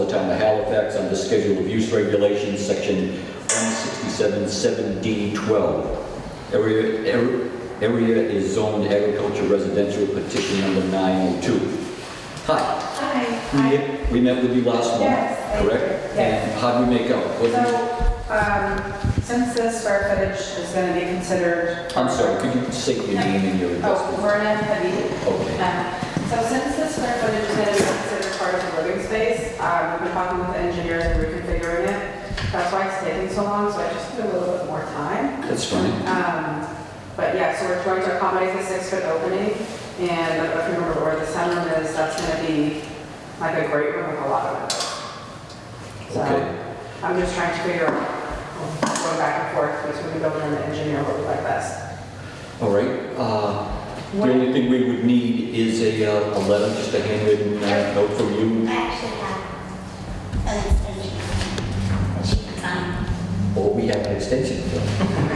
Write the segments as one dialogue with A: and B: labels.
A: of the Town of Halifax under Schedule of Use Regulations, Section 167-7D12. Area area- area is zoned agriculture residential, petition number 902. Hi, we
B: Hi.
A: met- we met with you last month,
B: Yes, I did,
A: correct?
B: yes.
A: And how do we make out?
B: So,
A: Wasn't-
B: um, since the square footage is going to be considered.
A: I'm sorry, could you say your name and your
B: Oh,
A: address?
B: Vernon Habib.
A: Okay.
B: Um, So since the square footage is going to be considered part of the living space, um, we've been talking with the engineers and reconfiguring it. That's why it's taking so long, so I just need a little bit more time.
A: That's fine.
B: Um, But yeah, so we're trying to accommodate the six-foot opening, and I don't know if you remember where the sunroom is, that's going to be like a great room with a lot of windows. So
A: Okay.
B: I'm just trying to figure out, going back and forth, because we can go in the engineer would like best.
A: All right. uh, The
B: What-
A: only thing we would need is a uh, a letter, just a handwritten uh, note from you.
C: I actually have an extension. that She can sign.
A: Or we have an extension. so-
B: I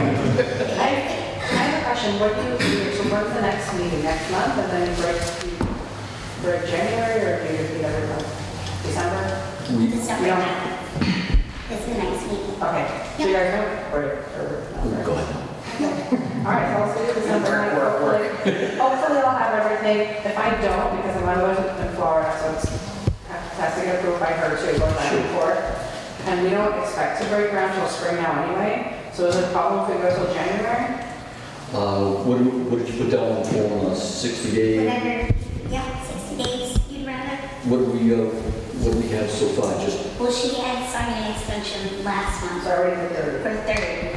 B: I have a question, what do you, so when's the next meeting, next month, and then break, break January, or do you repeat every month? December?
A: we-
C: December
B: Yeah.
C: 9th is the next meeting.
B: Okay, do you guys know, or, or?
A: Go ahead.
B: All right, so let's do December ninth, hopefully. Hopefully I'll have everything. If I don't, because I'm on in Florida, so it's, has to get approved by her too, going back and forth. And we don't expect to break ground till spring now anyway, so is it a problem if we go till January?
A: Uh, What do- what did you put down on the form, uh, 60 day?
C: Whatever, yeah, 60 days, you'd rather.
A: What do we, uh, what do we have so far? Just,
C: Well, she had signed an extension last
B: It's
C: month
B: already the third.
C: for third.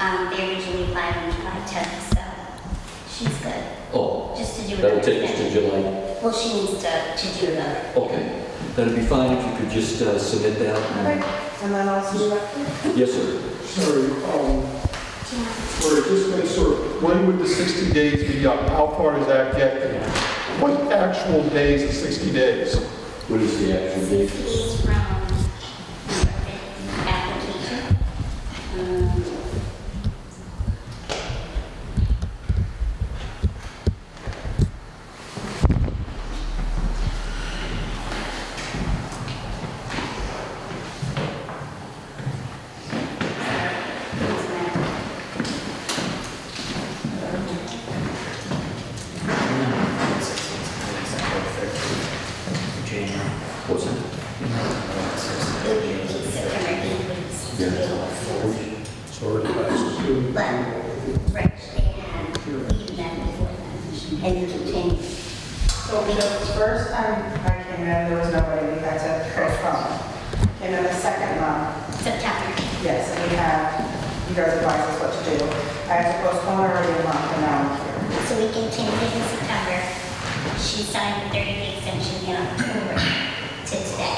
C: Um, they originally applied on July 10th, so she's good,
A: oh,
C: just to do another
A: that'll take us to
C: extension.
A: July.
C: Well, she needs to, to do another.
A: Okay. That'd be fine if you could just uh, submit that.
B: Okay,
A: and-
B: and then I'll see you back.
A: Yes, sir.
D: Sorry, um,
C: Do you want-
D: sorry, just make sure, when would the 60 days be up? How far does that get? What actual days is 60 days?
A: What is the actual date?
C: CCs from the application. Um,
A: What's it?
C: It would be September 8th,
A: Yeah.
C: But, right, they had leave that before that, and you can change.
B: So the first time I came in, there was nobody, we had to postpone. And then the second month,
C: September.
B: Yes, and we have, you guys advise us what to do. I had to postpone already a month and now I'm here.
C: So we can change it in September. She signed the 30-day extension in October to today,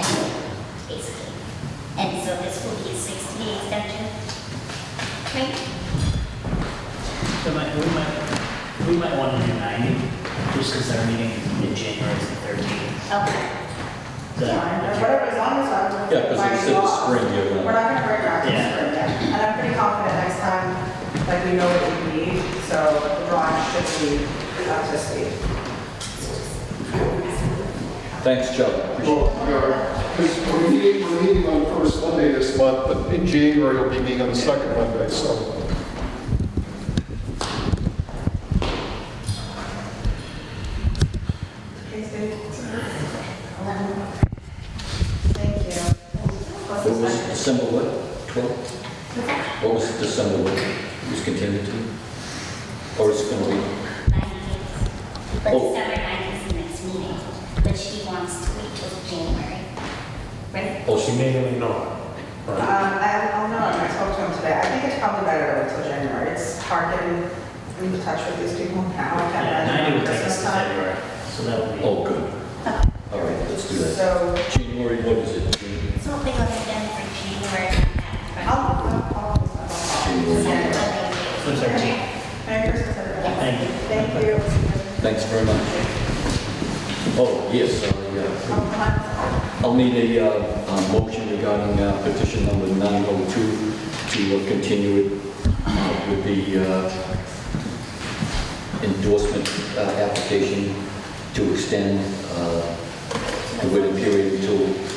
C: basically. And so this will be a 60-day extension. Right?
E: So might, we might, we might want to do 90, just because our meeting in January is the 13th.
C: Okay.
E: The-
B: Or Whatever, as long as I'm.
A: Yeah, 'cause they said the spring, you're gonna-
B: We're not gonna break ground this
E: Yeah.
B: spring yet. And I'm pretty confident next time, like, we know what we need, so the drawing should be up to speed.
A: Thanks, Chuck. Appreciate it.
D: Well, because we're meeting, we're meeting on the first Monday this month, but in January, we'll be meeting on the second Monday, so.
B: Thank you. What's
A: What
B: the
A: was
B: second?
A: December what? 12? What was December what? It was continued to? Or it's going to be,
C: 90 days. But
A: Oh.
C: December 9th is the next meeting, but she wants to wait till January. Right?
A: oh, she made,
B: Um, I, I'll know, I spoke to him today. I think it's probably better until January. It's hard getting in touch with these people now. I can't
E: Yeah,
B: imagine
E: 90 would take us
B: Christmas
E: to
B: time.
E: February, so that'll be.
A: oh, good. All right, let's do that.
B: So
A: January, what is it? January-
C: Something on the agenda for January.
B: I'll, I'll, I'll.
A: January.
E: So it's our team.
B: Merry Christmas, everybody.
E: Thank you.
B: Thank you.
A: Thanks very much. Oh, yes, I, uh,
B: I'll hunt.
A: I'll need a, uh, a motion regarding uh, petition number 902 to uh, continue it uh, with the uh, endorsement uh, application to extend uh, the waiting period until